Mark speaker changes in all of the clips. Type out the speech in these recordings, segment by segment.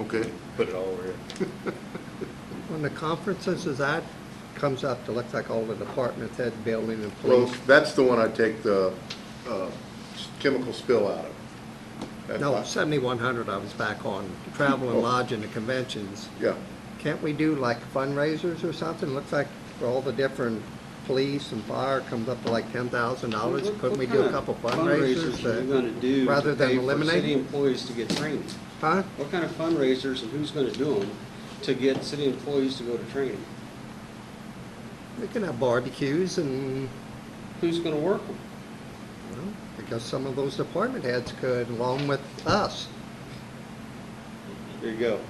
Speaker 1: Okay,
Speaker 2: Put it all over here.
Speaker 3: When the conferences is at, comes up, it looks like all the departments head, building and
Speaker 1: well,
Speaker 3: police.
Speaker 1: that's the one I take the uh, s- chemical spill out of. That's
Speaker 3: No,
Speaker 1: why-
Speaker 3: seventy-one hundred I was back on, travel and lodge and the conventions.
Speaker 1: Yeah,
Speaker 3: Can't we do like fundraisers or something? Looks like for all the different police and fire comes up to like ten thousand dollars.
Speaker 4: What-
Speaker 3: Couldn't we
Speaker 4: what
Speaker 3: do a
Speaker 4: kind of
Speaker 3: couple fundraisers?
Speaker 4: Fundraisers are you
Speaker 3: uh,
Speaker 4: gonna do
Speaker 3: rather
Speaker 4: to
Speaker 3: than
Speaker 4: pay for
Speaker 3: eliminate?
Speaker 4: city employees to get training?
Speaker 3: Huh?
Speaker 4: What kind of fundraisers and who's gonna do them to get city employees to go to training?
Speaker 3: We can have barbecues and,
Speaker 4: Who's gonna work them?
Speaker 3: well, because some of those department heads could, along with us.
Speaker 4: There you go.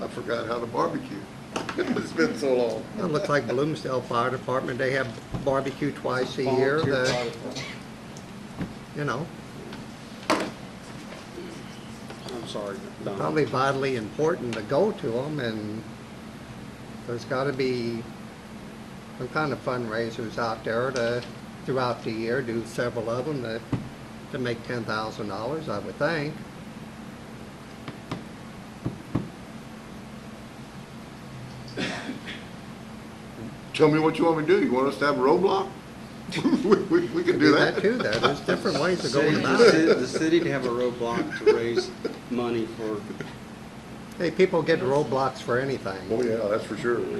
Speaker 1: I forgot how to barbecue. It's been so long.
Speaker 3: It looks like Bloomsdale Fire Department, they have barbecue twice a year.
Speaker 4: Volunteer
Speaker 3: The-
Speaker 4: fire department.
Speaker 3: you know,
Speaker 4: I'm sorry, Don.
Speaker 3: probably vitally important to go to them, and there's gotta be some kind of fundraisers out there to, throughout the year, do several of them to, to make ten thousand dollars, I would think.
Speaker 1: Tell me what you want me to do. You want us to have a roadblock? We- We we can do that.
Speaker 3: too, though, there's different ways
Speaker 4: The
Speaker 3: of going
Speaker 4: city-
Speaker 3: about
Speaker 4: the
Speaker 3: it.
Speaker 4: ci- the city to have a roadblock to raise money for,
Speaker 3: Hey, people get roadblocks for anything.
Speaker 1: Oh, yeah, that's for sure.
Speaker 5: Oh, yeah.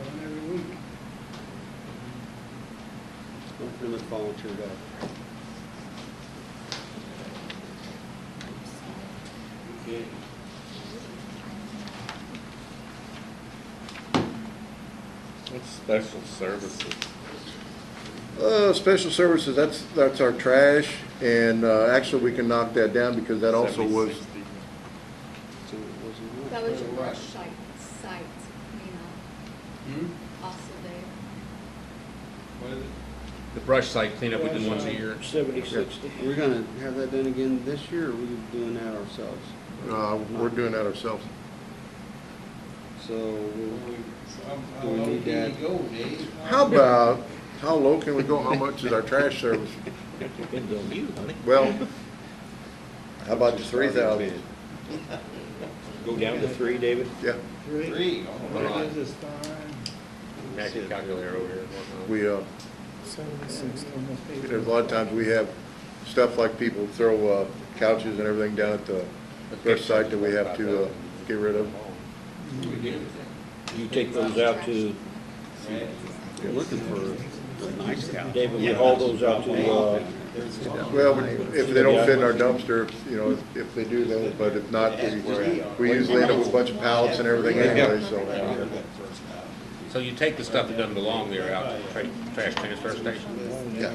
Speaker 5: One every week.
Speaker 4: them to volunteer that.
Speaker 2: What's special services?
Speaker 1: Uh, Special services, that's, that's our trash, and uh, actually, we can knock that down because that also was,
Speaker 2: 70-60.
Speaker 4: So it wasn't
Speaker 6: That
Speaker 4: work.
Speaker 6: was your worst site, site, you
Speaker 1: Hmm?
Speaker 6: know, also there.
Speaker 2: The brush site cleanup we did once a year.
Speaker 5: Seventy, sixty.
Speaker 4: Are we gonna have that done again this year, or are we doing that ourselves?
Speaker 1: uh, we're doing that ourselves.
Speaker 4: So we'll
Speaker 5: How
Speaker 4: Do we
Speaker 5: low
Speaker 4: need
Speaker 5: can
Speaker 4: that?
Speaker 5: you go, Dave?
Speaker 1: How about, how low can we go? How much is our trash service? Well, how about the three thousand?
Speaker 7: Go down to three, David?
Speaker 1: Yeah,
Speaker 5: Three. Oh,
Speaker 2: Hold on.
Speaker 5: that is fine.
Speaker 2: Magic calculator over here. and whatnot.
Speaker 1: we, uh, there's a lot of times we have stuff like people throw uh, couches and everything down at the brush site that we have to uh, get rid of.
Speaker 5: We did it.
Speaker 7: You take those out to,
Speaker 4: looking for a nice guy.
Speaker 7: David, we haul those out to, uh,
Speaker 1: Well, we- if they don't fit in our dumpster, you know, if they do, then, but if not, we- we usually end up with a bunch of pallets and everything anyway, so.
Speaker 2: So you take the stuff that doesn't belong there out to the tra- trash transfer station
Speaker 1: yeah.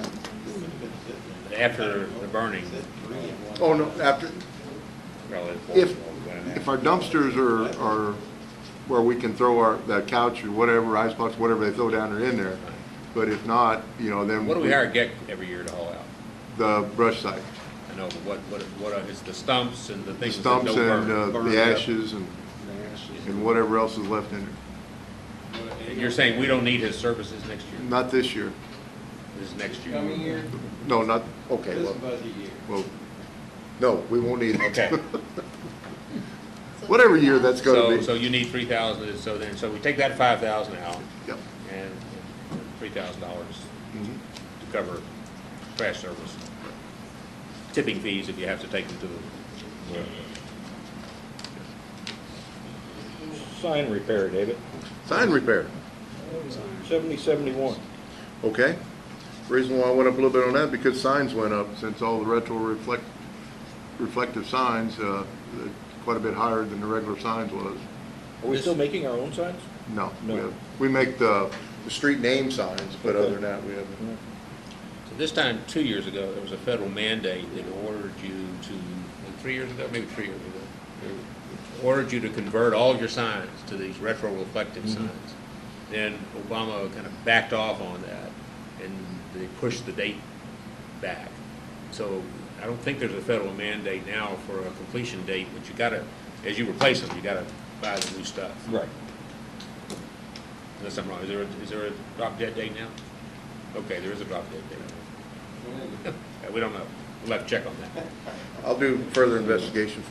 Speaker 2: after the burning.
Speaker 1: Oh, no, after,
Speaker 2: probably.
Speaker 1: If, if our dumpsters are, are where we can throw our, that couch or whatever, icebox, whatever they throw down there in there, but if not, you know, then.
Speaker 2: What do we hire Geck every year to haul out?
Speaker 1: The brush site,
Speaker 2: I know, but what, what, what are- it's the stumps and the
Speaker 1: the
Speaker 2: things that don't
Speaker 1: stumps and
Speaker 2: burn.
Speaker 1: uh,
Speaker 4: burn,
Speaker 1: the
Speaker 4: yeah.
Speaker 1: ashes and, and whatever else is left in there. uh,
Speaker 2: And You're saying we don't need his services next year,
Speaker 1: Not this year,
Speaker 2: this next year?
Speaker 5: Coming year,
Speaker 1: no, not, okay,
Speaker 5: this
Speaker 1: well,
Speaker 5: budget year.
Speaker 1: well, no, we won't need it.
Speaker 2: Okay.
Speaker 6: So
Speaker 1: Whatever year that's gonna
Speaker 2: So,
Speaker 1: be.
Speaker 2: so you need three thousand, so then, so we take that five thousand out
Speaker 1: Yep.
Speaker 2: and three thousand dollars
Speaker 1: Mhm.
Speaker 2: to cover trash service. Tipping fees if you have to take them to the,
Speaker 7: sign repair, David,
Speaker 1: Sign repair,
Speaker 7: seventy, seventy-one.
Speaker 1: okay? Reason why I went up a little bit on that, because signs went up, since all the retro reflect, reflective signs, uh, quite a bit higher than the regular signs was.
Speaker 7: Are we still making our own signs?
Speaker 1: No, we
Speaker 7: No.
Speaker 1: have- we make the, the street name signs, but
Speaker 7: Okay.
Speaker 1: other than that, we haven't.
Speaker 2: So this time, two years ago, there was a federal mandate that ordered you to, three years ago, maybe three years ago, ordered you to convert all your signs to these retroreflective signs. Then Obama kind of backed off on that, and they pushed the date back. So I don't think there's a federal mandate now for a completion date, but you gotta, as you replace them, you gotta buy the new stuff.
Speaker 7: Right.
Speaker 2: Unless I'm wrong, is there, a- is there a drop dead date now? Okay, there is a drop dead date. Yeah, we don't know. we'll have to check on that.
Speaker 1: I'll do further investigation